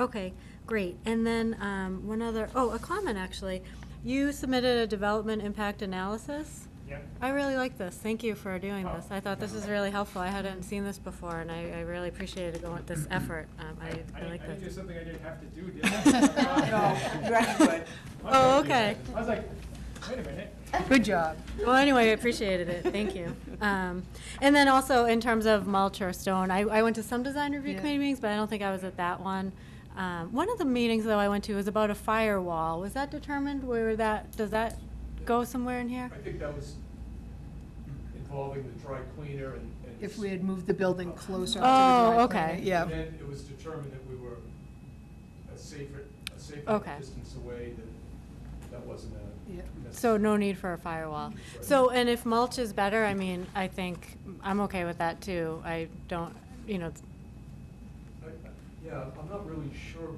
Okay, great. And then um, one other, oh, a comment, actually. You submitted a development impact analysis? Yep. I really like this. Thank you for doing Oh. this. I thought this was really helpful. I hadn't seen this before, and I I really appreciated going, this effort. Um, I I like I didn't do this. something I didn't have to do, did No, I? you actually could. Oh, okay. I was like, wait a minute. Good job. Well, anyway, I appreciated it. Thank you. Um, And then also, in terms of mulch or stone, I I went to some design review Yeah. committee meetings, but I don't think I was at that one. Um, One of the meetings, though, I went to was about a firewall. Was that determined? Where that, does that go somewhere in here? I think that was involving the dry cleaner and. and- If we had moved the building closer. to the Oh, dry okay. cleaner, Yeah. And then it was determined that we were a safer, a Okay. safer distance away, that that wasn't a. Yeah. So necessary- no need for a firewall. So, and if mulch is better, I mean, I think, I'm okay with that too. I don't, you know, it's- I- I- Yeah, I'm not really sure,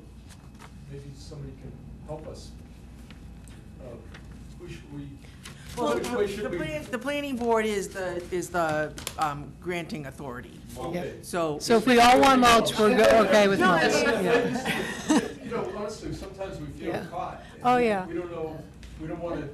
maybe somebody can help us. Uh, Who should we, Well, which way should the we? plan- the planning board is the, is the um, granting authority, Okay. so. So if we all want mulch, we're go- okay with No, mulch. it's- Yeah. You know, honestly, sometimes we feel Yeah. caught. Oh, yeah. We don't know, we don't want to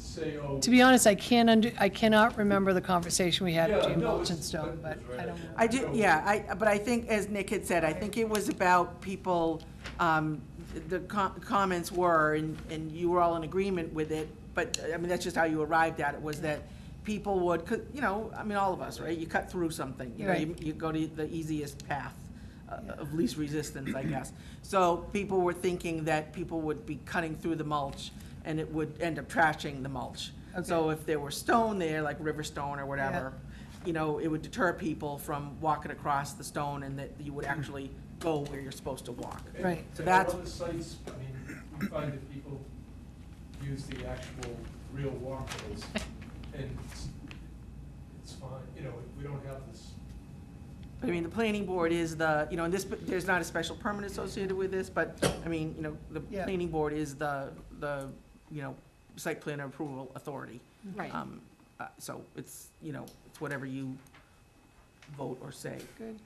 say, oh. To be honest, I can't under, I cannot remember the conversation we had Yeah, between no, mulch and it's- stone, but it's right. I don't I know. do, yeah, I, but I think, as Nick had said, I think it was about people, um, the com- comments were, and, and you were all in agreement with it, but, I mean, that's just how you arrived at it, was that people would, 'cause, you know, I mean, all of us, right? You cut through something, you know, you, you go to the easiest path uh, of least resistance, I guess. So people were thinking that people would be cutting through the mulch, and it would end up trashing the mulch. So if there were stone there, like river stone or whatever, you know, it would deter people from walking across the stone and that you would actually go where you're supposed to walk. And- Right. and So that's- other sites, I mean, we find that people use the actual real walkways, and it's- it's fine, you know, we don't have this. I mean, the planning board is the, you know, and this, there's not a special permit associated with this, but, I mean, you know, the Yeah. planning board is the, the, you know, site plan approval authority. right. Um, uh, So it's, you know, it's whatever you vote or say. Good.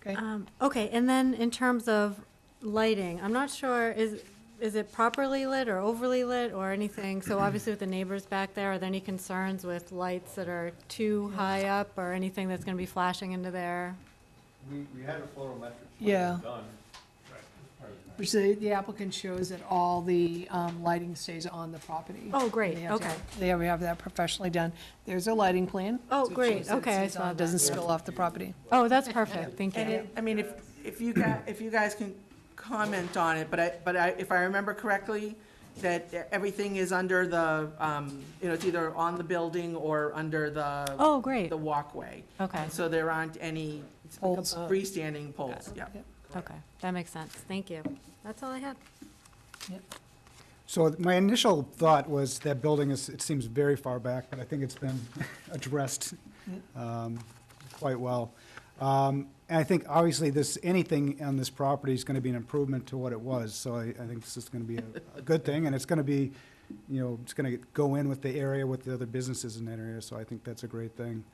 Okay, Um, Okay, and then in terms of lighting, I'm not sure, is, is it properly lit or overly lit or anything? So obviously with the neighbors back there, are there any concerns with lights that are too high up or anything that's going to be flashing into there? We, we had a photometric Yeah. plan done. which the, the applicant shows that all the, um, lighting stays on the property. Oh, great. They have to- Okay. They already have that professionally done. There's a lighting plan. Oh, so it great. shows that it Okay, I stays saw on, that. Doesn't spill off the property. Oh, that's perfect, thank And you. it, I mean, if, if you guys, if you guys can comment on it, but I, but I, if I remember correctly, that everything is under the, um, you know, it's either on the building or under the. Oh, great, The walkway. okay, So there aren't any Poles. freestanding poles, yeah. okay, that makes sense, thank you. That's all I had. So my initial thought was that building is, it seems very far back, but I think it's been addressed um, quite well. Um, And I think obviously this, anything on this property is going to be an improvement to what it was. So I, I think this is going to be a, a good thing and it's going to be, you know, it's going to go in with the area, with the other businesses in that area. So I think that's a great thing.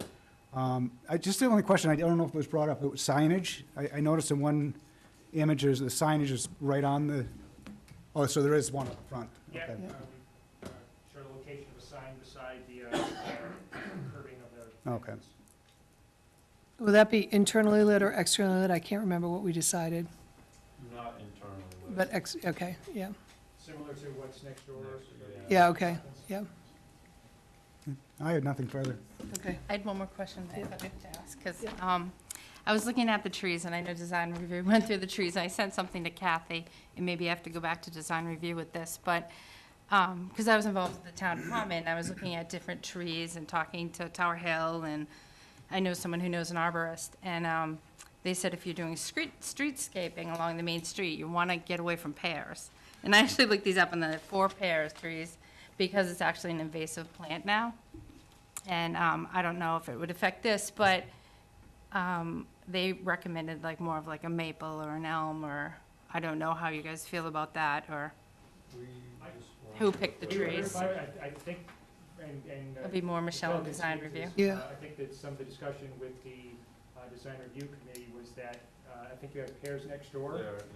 Um, I, just the only question, I don't know if it was brought up, it was signage. I, I noticed in one image, there's the signage is right on the, oh, so there is one up front. Yeah, Okay. uh, we, uh, show the location of a sign beside the uh, uh, curving of the. Okay. Will that be internally lit or externally lit? I can't remember what we decided, Not internally. but ex, okay, yeah, Similar to what's next door. yeah, okay, yeah, I had nothing further. okay. I had one more question that I thought I had to ask, because I was looking at the trees, and I know design review went through the trees, and I sent something to Kathy, and maybe I have to go back to design review with this, but, because I was involved with the town common, I was looking at different trees and talking to Tower Hill, and I know someone who knows an arborist, and um, they said if you're doing street, streetscaping along the main street, you want to get away from pears. And I actually looked these up, and the four pears trees, because it's actually an invasive plant now. And um, I don't know if it would affect this, but um, they recommended like more of like a maple or an elm or, I don't know how you guys feel about that or uh, who picked the trees. I I think, and, and. uh, It'll be more Michelle in Michelle design can speak to review. this. Yeah. Uh, I think that some of the discussion with the uh, design review committee was that, uh, I think you have pairs next door.